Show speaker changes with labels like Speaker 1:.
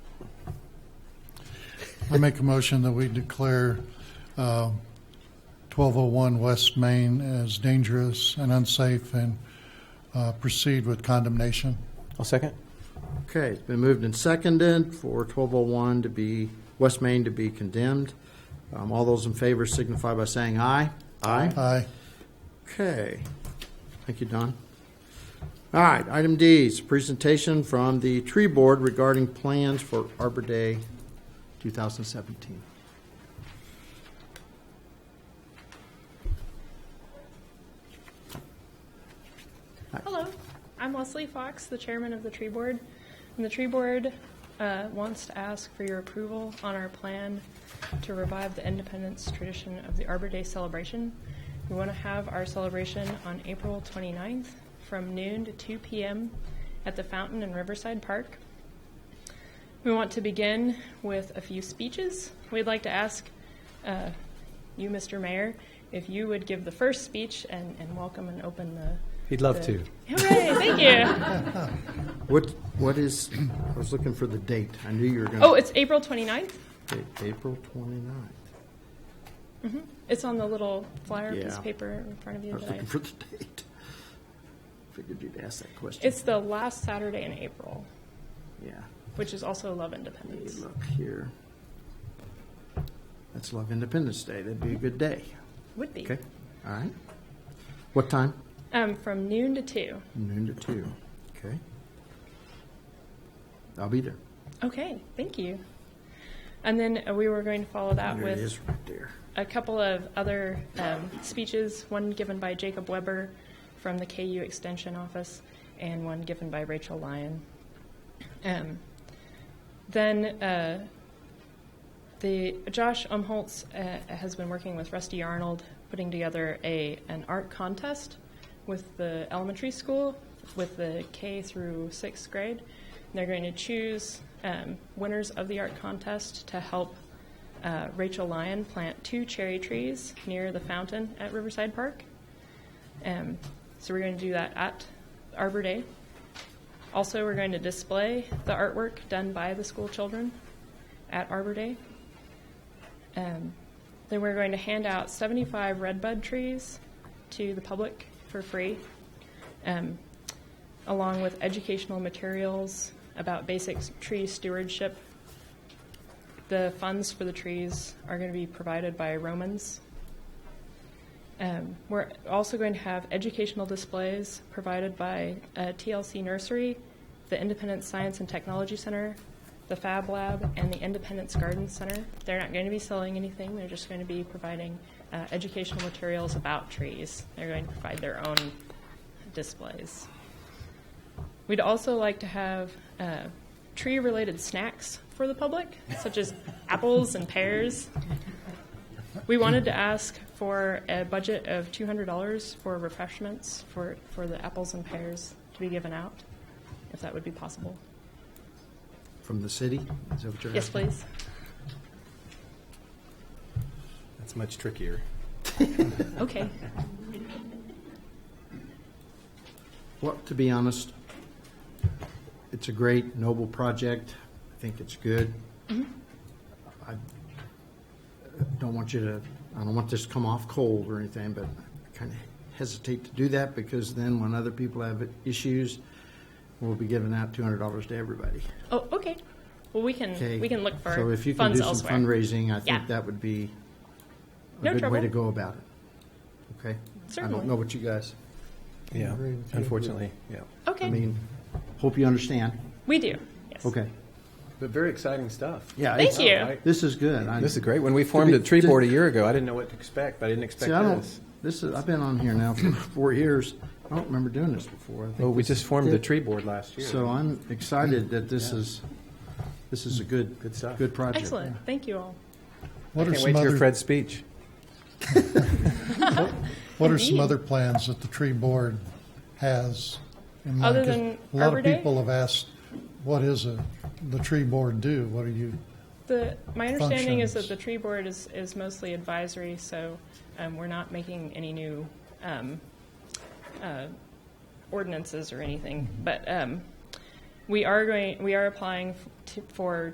Speaker 1: I make a motion that we declare uh, 1201 West Main as dangerous and unsafe and uh, proceed with condemnation.
Speaker 2: I'll second.
Speaker 3: Okay, it's been moved and seconded for 1201 to be, West Main to be condemned. Um, All those in favor signify by saying aye. Aye.
Speaker 1: Aye.
Speaker 3: Okay. Thank you, Don. All right, item D is presentation from the tree board regarding plans for Arbor Day 2017.
Speaker 4: Hello, I'm Leslie Fox, the chairman of the tree board. And the tree board uh, wants to ask for your approval on our plan to revive the independence tradition of the Arbor Day celebration. We want to have our celebration on April 29th from noon to 2 p.m. at the fountain in Riverside Park. We want to begin with a few speeches. We'd like to ask uh, you, Mr. Mayor, if you would give the first speech and and welcome and open the
Speaker 2: He'd love to.
Speaker 4: Hooray, thank you.
Speaker 3: What, what is, I was looking for the date. I knew you were
Speaker 4: Oh,
Speaker 3: going
Speaker 4: it's April 29th.
Speaker 3: to. April 29th.
Speaker 4: It's on the little flyer piece
Speaker 3: Yeah.
Speaker 4: of paper in front of
Speaker 3: I
Speaker 4: you
Speaker 3: was
Speaker 4: that I,
Speaker 3: looking for the date. Figured you'd ask that question.
Speaker 4: it's the last Saturday in April,
Speaker 3: Yeah.
Speaker 4: which is also
Speaker 3: Let
Speaker 4: Love
Speaker 3: me
Speaker 4: Independence.
Speaker 3: Look here. That's Love Independence Day. That'd be a good day.
Speaker 4: Would be.
Speaker 3: Okay, all right. What time?
Speaker 4: Um, from noon to two.
Speaker 3: Noon to two. Okay. I'll be there.
Speaker 4: Okay, thank you. And then uh, we were going to follow that
Speaker 3: There it
Speaker 4: with
Speaker 3: is right there.
Speaker 4: a couple of other um, speeches, one given by Jacob Weber from the KU Extension Office, and one given by Rachel Lyon. Um, then uh, the Josh Umholtz uh, has been working with Rusty Arnold, putting together a an art contest with the elementary school, with the K through sixth grade. And they're going to choose um, winners of the art contest to help uh, Rachel Lyon plant two cherry trees near the fountain at Riverside Park. Um, so we're going to do that at Arbor Day. Also, we're going to display the artwork done by the school children at Arbor Day. Um, then we're going to hand out 75 redbud trees to the public for free, um, along with educational materials about basic tree stewardship the funds for the trees are going to be provided by Romans. Um, we're also going to have educational displays provided by uh, TLC Nursery, the Independent Science and Technology Center, the Fab Lab, and the Independence Garden Center. They're not going to be selling anything, they're just going to be providing uh, educational materials about trees. They're going to provide their own displays. We'd also like to have uh, tree related snacks for the public, such as apples and pears. We wanted to ask for a budget of $200 for refreshments for, for the apples and pears to be given out, if that would be possible.
Speaker 3: From the city? Is that what you're
Speaker 4: Yes,
Speaker 3: asking?
Speaker 4: please.
Speaker 2: That's much trickier.
Speaker 4: Okay.
Speaker 3: Well, to be honest, it's a great, noble project. I think it's good.
Speaker 4: Mm-hmm.
Speaker 3: I don't want you to, I don't want this to come off cold or anything, but I kind of hesitate to do that because then when other people have issues, we'll be giving out $200 to everybody.
Speaker 4: Oh, okay. Well, we can,
Speaker 3: Okay?
Speaker 4: we can look for
Speaker 3: So if you can do
Speaker 4: funds
Speaker 3: some
Speaker 4: elsewhere.
Speaker 3: fundraising, I think
Speaker 4: Yeah.
Speaker 3: that would be
Speaker 4: No
Speaker 3: a good way
Speaker 4: trouble.
Speaker 3: to go about it. Okay? I
Speaker 4: Certainly.
Speaker 3: don't know what you guys,
Speaker 2: Yeah,
Speaker 3: agree with you.
Speaker 2: unfortunately, yeah.
Speaker 4: Okay.
Speaker 3: I mean, hope you understand.
Speaker 4: we do. Yes.
Speaker 3: Okay.
Speaker 2: But very exciting stuff.
Speaker 3: Yeah.
Speaker 4: Thank
Speaker 3: it's-
Speaker 4: you.
Speaker 2: I-
Speaker 3: This is good. I-
Speaker 2: This is great. When we formed
Speaker 3: be-
Speaker 2: a tree
Speaker 3: to-
Speaker 2: board a year ago, I didn't know what to expect, but I didn't expect
Speaker 3: See, I don't,
Speaker 2: this.
Speaker 3: this is, I've been on here now for four years. I don't remember doing this before. I think
Speaker 2: Well, we
Speaker 3: this-
Speaker 2: just formed the tree board last year.
Speaker 3: So I'm excited that this is, this is a good,
Speaker 2: Good stuff.
Speaker 3: good project.
Speaker 4: Excellent. Thank you all.
Speaker 1: What are
Speaker 2: Can't
Speaker 1: some
Speaker 2: wait to hear
Speaker 1: other,
Speaker 2: Fred's speech.
Speaker 1: what are some
Speaker 4: Indeed.
Speaker 1: other plans that the tree board has? in mind?
Speaker 4: Other
Speaker 1: 'Cause
Speaker 4: than
Speaker 1: A lot
Speaker 4: Arbor
Speaker 1: of
Speaker 4: Day?
Speaker 1: people have asked, what is a, the tree board do? What are you,
Speaker 4: The, my understanding is that
Speaker 1: functions.
Speaker 4: the tree board is, is mostly advisory, so um, we're not making any new um, uh, ordinances or anything. But um, we are going, we are applying f- to- for